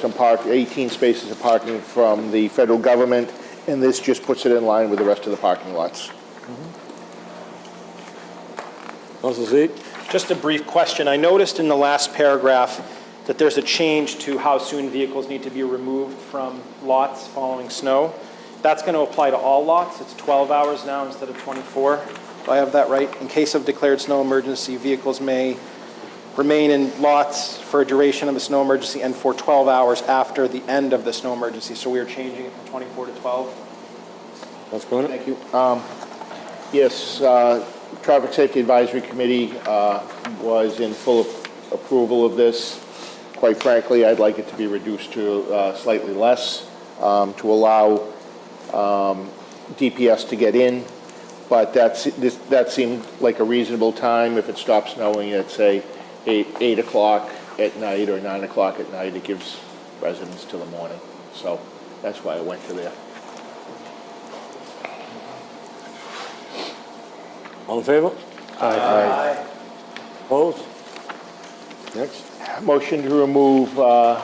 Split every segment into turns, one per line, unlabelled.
Some park, 18 spaces of parking from the federal government, and this just puts it in line with the rest of the parking lots.
Council Z,
Just a brief question. I noticed in the last paragraph that there's a change to how soon vehicles need to be removed from lots following snow. That's going to apply to all lots. It's 12 hours now instead of 24. Do I have that right? In case of declared snow emergency, vehicles may remain in lots for a duration of the snow emergency and for 12 hours after the end of the snow emergency. So we are changing it from 24 to 12.
Council Cronin?
Thank you. Um, Yes, uh, Traffic Safety Advisory Committee uh, was in full approval of this. Quite frankly, I'd like it to be reduced to uh, slightly less, um, to allow um, DPS to get in, but that's, this- that seemed like a reasonable time. If it stops snowing at, say, eight eight o'clock at night or nine o'clock at night, it gives residents till the morning. So that's why I went to there.
All in favor? Aye. Opposed? Next.
Motion to remove, uh,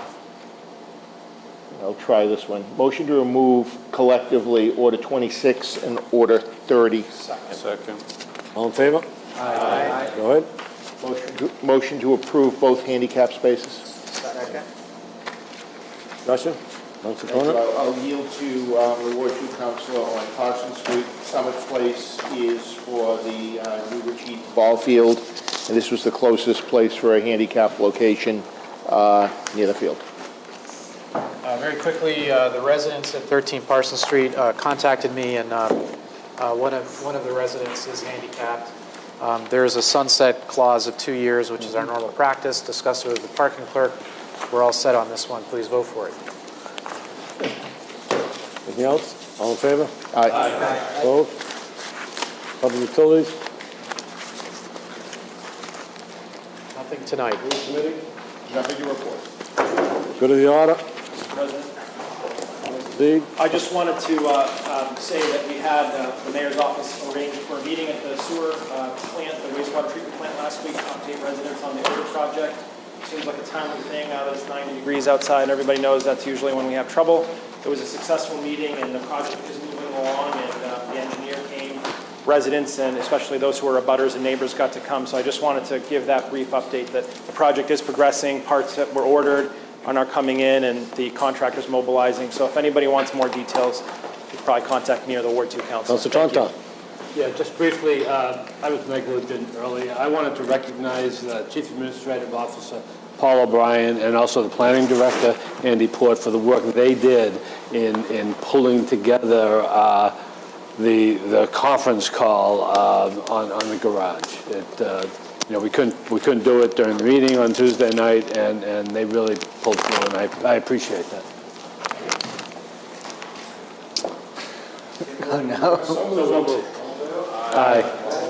I'll try this one. Motion to remove collectively Order 26 and Order 30.
All in favor? Aye. Go ahead.
Motion to- Motion to approve both handicap spaces.
Russia? Council Cronin?
I'll yield to um, the Ward 2 Councilor on Carson Street. Summit Place is for the uh, New Ritchie Ball Field, and this was the closest place for a handicap location uh, near the field.
Uh, Very quickly, uh, the residents at 13 Parsons Street uh, contacted me, and um, uh, one of, one of the residents is handicapped. Um, There is a sunset clause of two years, which is our normal practice, discussed with the parking clerk. We're all set on this one, please vote for it.
Anything else? All in favor?
Aye.
Opposed? Public utilities?
Nothing tonight.
Nothing to report.
Good of the order? Z,
I just wanted to uh, um, say that we had uh, the mayor's office arranged for a meeting at the sewer uh, plant, the wastewater treatment plant last week, to update residents on the odor project. Seems like a timely thing, now that it's 90 degrees outside, and everybody knows that's usually when we have trouble. It was a successful meeting, and the project is moving along, and uh, the engineer came. Residents, and especially those who are abutters and neighbors, got to come. So I just wanted to give that brief update that the project is progressing, parts that were ordered, on our coming in and the contractors mobilizing. So if anybody wants more details, you can probably contact me or the Ward 2 Council.
Council Tonto?
Yeah, just briefly, uh, I was negligent earlier. I wanted to recognize uh, Chief Administrative Officer Paul O'Brien and also the Planning Director Andy Port for the work they did in, in pulling together uh, the, the conference call uh, on, on the garage. It, uh, you know, we couldn't, we couldn't do it during the meeting on Tuesday night, and, and they really pulled through, and I, I appreciate that. Aye.